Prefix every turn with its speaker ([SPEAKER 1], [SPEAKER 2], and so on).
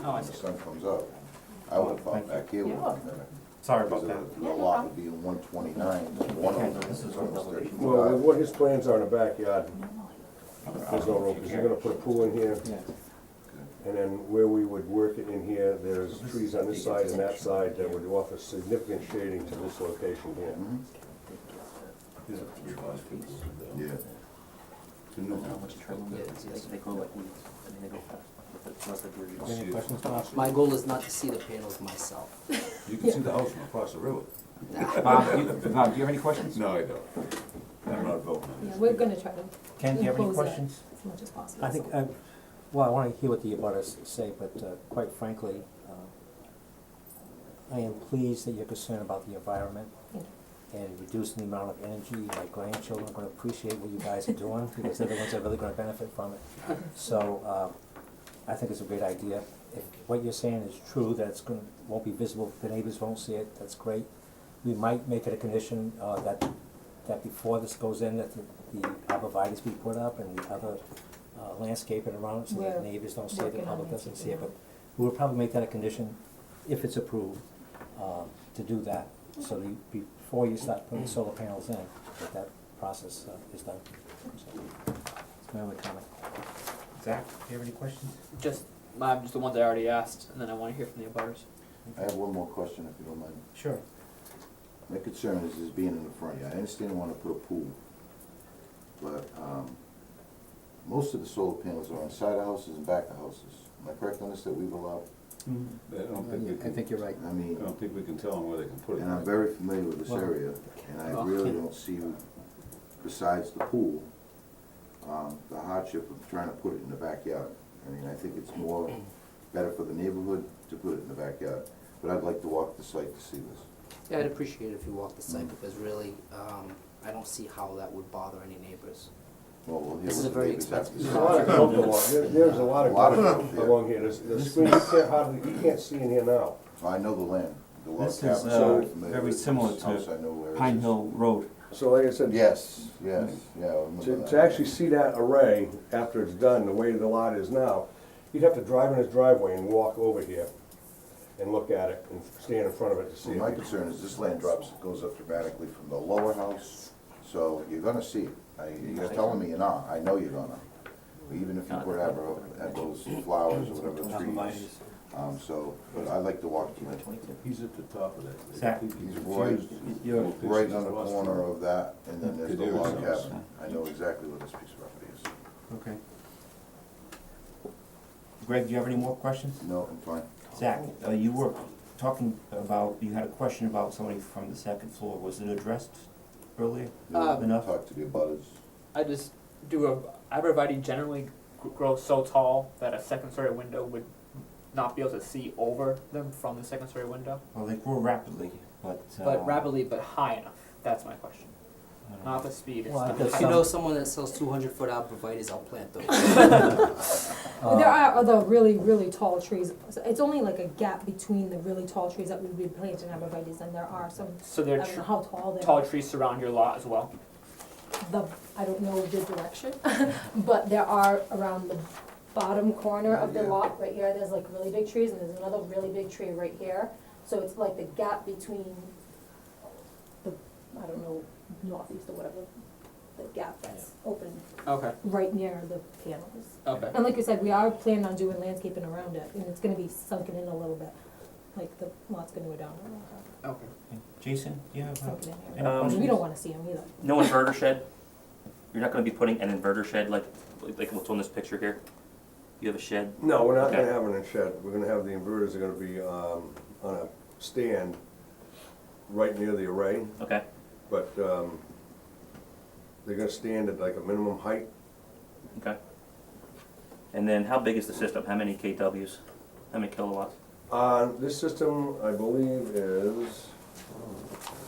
[SPEAKER 1] Oh, I
[SPEAKER 2] when the
[SPEAKER 1] see.
[SPEAKER 2] sun comes up. I would have thought back here would have been better.
[SPEAKER 3] Sorry
[SPEAKER 2] Because
[SPEAKER 3] about that.
[SPEAKER 2] the- the lot would be in one twenty-nine, one of them is almost
[SPEAKER 4] Well,
[SPEAKER 2] thirty-five.
[SPEAKER 4] what his plans are in the backyard, there's no room, because they're gonna put a pool in here, and then where we would work it in here, there's trees on this side and that side that would offer significant shading to this location here.
[SPEAKER 2] Mm-hmm. Yeah.
[SPEAKER 5] Any questions, Bob?
[SPEAKER 6] My goal is not to see the panels myself.
[SPEAKER 7] You can see the house from across the river.
[SPEAKER 3] Bob, you- Bob, do you have any questions?
[SPEAKER 7] No, I don't. I'm not voting.
[SPEAKER 8] Yeah, we're gonna try to
[SPEAKER 3] Ken, do you have any
[SPEAKER 8] Enclose it.
[SPEAKER 3] questions?
[SPEAKER 8] as much as possible.
[SPEAKER 5] I think,
[SPEAKER 8] so.
[SPEAKER 5] um, well, I wanna hear what the abutters say, but uh, quite frankly, uh, I am pleased that you're concerned about the environment
[SPEAKER 8] Thank
[SPEAKER 5] and reducing the amount of energy. My grandchildren are gonna appreciate what you guys are doing, because they're the ones that are really gonna benefit from it. So, uh, I think it's a great idea. If what you're saying is true, that it's gonna, won't be visible, the neighbors won't see it, that's great. We might make it a condition, uh, that, that before this goes in, that the, the arborvitae's be put up and the other, uh, landscaping around it, so that
[SPEAKER 8] We're
[SPEAKER 5] neighbors don't see it, the
[SPEAKER 8] working on
[SPEAKER 5] public
[SPEAKER 8] it,
[SPEAKER 5] doesn't see it,
[SPEAKER 8] yeah.
[SPEAKER 5] but we'll probably make that a condition, if it's approved, uh, to do that. So that you, before you start putting solar panels in, that that process, uh, is done, so, that's my only comment.
[SPEAKER 3] Zach, do you have any questions?
[SPEAKER 1] Just, I'm just the ones I already asked, and then I wanna hear from the abutters.
[SPEAKER 2] I have one more question, if you don't mind.
[SPEAKER 3] Sure.
[SPEAKER 2] My concern is this being in the front yard. I understand you wanna put a pool, but, um, most of the solar panels are on side of houses and back of houses. Am I correct on this, that we've allowed?
[SPEAKER 7] I don't think we
[SPEAKER 5] I
[SPEAKER 7] can,
[SPEAKER 5] think you're right.
[SPEAKER 2] I
[SPEAKER 7] I
[SPEAKER 2] mean,
[SPEAKER 7] don't think we can tell them where they can put it.
[SPEAKER 2] and I'm very familiar with this
[SPEAKER 5] Well-
[SPEAKER 2] area, and I really don't see, besides the pool, um, the hardship of trying to put it in the backyard. I mean, I think it's more, better for the neighborhood to put it in the backyard, but I'd like to walk the site to see this.
[SPEAKER 6] Yeah, I'd appreciate it if you walked the
[SPEAKER 1] Mm.
[SPEAKER 6] site, because really, um, I don't see how that would bother any neighbors.
[SPEAKER 2] Well, we'll hear
[SPEAKER 6] This is a
[SPEAKER 2] what the
[SPEAKER 6] very
[SPEAKER 2] neighbors have to
[SPEAKER 6] expensive.
[SPEAKER 2] say.
[SPEAKER 4] There's a lot of growth along, there- there's a lot
[SPEAKER 2] A lot
[SPEAKER 4] of
[SPEAKER 2] of growth,
[SPEAKER 4] growth
[SPEAKER 2] yeah.
[SPEAKER 4] along here, there's, the screen, you can't hardly, you can't see in here now.
[SPEAKER 2] I know the land, the log
[SPEAKER 3] This is,
[SPEAKER 2] cabins,
[SPEAKER 3] uh,
[SPEAKER 2] I'm familiar
[SPEAKER 3] very
[SPEAKER 2] with this
[SPEAKER 3] similar to
[SPEAKER 2] house, I know where it
[SPEAKER 3] Pine
[SPEAKER 2] is.
[SPEAKER 3] Hill Road.
[SPEAKER 4] So like I said,
[SPEAKER 2] Yes, yes, yeah. I remember
[SPEAKER 4] To,
[SPEAKER 2] that.
[SPEAKER 4] to actually see that array after it's done, the way the lot is now, you'd have to drive in his driveway and walk over here and look at it and stand in front of it to see
[SPEAKER 2] Well, my
[SPEAKER 4] it.
[SPEAKER 2] concern is this land drops, goes up dramatically from the lower house, so you're gonna see it. I- You're telling me you're not, I know you're gonna. Even if you put ever, have those flowers or whatever trees, um, so, but I like to walk through it.
[SPEAKER 7] He's at the top of that.
[SPEAKER 3] Zach.
[SPEAKER 2] He's right, right on the corner of that, and then there's the log cabin. I know exactly where this piece of property is.
[SPEAKER 3] Okay. Greg, do you have any more questions?
[SPEAKER 2] No, I'm fine.
[SPEAKER 3] Zach, uh, you were talking about, you had a question about somebody from the second floor. Was it addressed earlier?
[SPEAKER 1] Uh,
[SPEAKER 3] Enough?
[SPEAKER 2] Talk to the abutters.
[SPEAKER 1] I just do a arborvitae generally gr- grows so tall that a second story window would not be able to see over them from the second story window,
[SPEAKER 3] Well, they grow rapidly, but, uh.
[SPEAKER 5] Oh.
[SPEAKER 1] but rapidly but high enough. That's my question.
[SPEAKER 3] I don't know.
[SPEAKER 1] Not the speed. It's
[SPEAKER 5] Well, I
[SPEAKER 1] the
[SPEAKER 5] guess
[SPEAKER 6] If
[SPEAKER 1] height.
[SPEAKER 6] you know someone that sells two hundred foot arborvitae's, I'll plant those.
[SPEAKER 3] Uh,
[SPEAKER 8] But There are other really, really tall trees, So it's only like a gap between the really tall trees that we've been planting arborvitae's, and there are some,
[SPEAKER 1] So
[SPEAKER 8] I
[SPEAKER 1] there are
[SPEAKER 8] don't know how tall they
[SPEAKER 1] tall
[SPEAKER 8] are.
[SPEAKER 1] trees surround your lot as well.
[SPEAKER 8] The, I don't know the direction, but there are around the bottom corner of the
[SPEAKER 2] Yeah.
[SPEAKER 8] lot, right here, there's like really big trees, and there's another really big tree right here. So it's like the gap between the, I don't know, northeast or whatever, the gap that's open
[SPEAKER 1] Okay.
[SPEAKER 8] right near the panels.
[SPEAKER 1] Okay.
[SPEAKER 8] And like you said, we are planning on doing landscaping around it, and it's gonna be sunken in a little bit, like the lot's gonna go down a little bit,
[SPEAKER 1] Okay.
[SPEAKER 3] Jason, do you have, uh,
[SPEAKER 8] sunken in
[SPEAKER 3] any
[SPEAKER 8] here.
[SPEAKER 3] questions?
[SPEAKER 8] We don't wanna see them either.
[SPEAKER 9] No inverter shed? You're not gonna be putting an inverter shed like, like what's on this picture here? You have a shed?
[SPEAKER 4] No, we're not gonna
[SPEAKER 9] Okay.
[SPEAKER 4] have it in a shed, we're gonna have, the inverters are gonna be, um, on a stand right near the array,
[SPEAKER 9] Okay,
[SPEAKER 4] but, um, they're gonna stand at like a minimum height,
[SPEAKER 9] okay. And then how big is the system? How many KWs? How many kilowatts?
[SPEAKER 4] Uh, this system, I believe, is,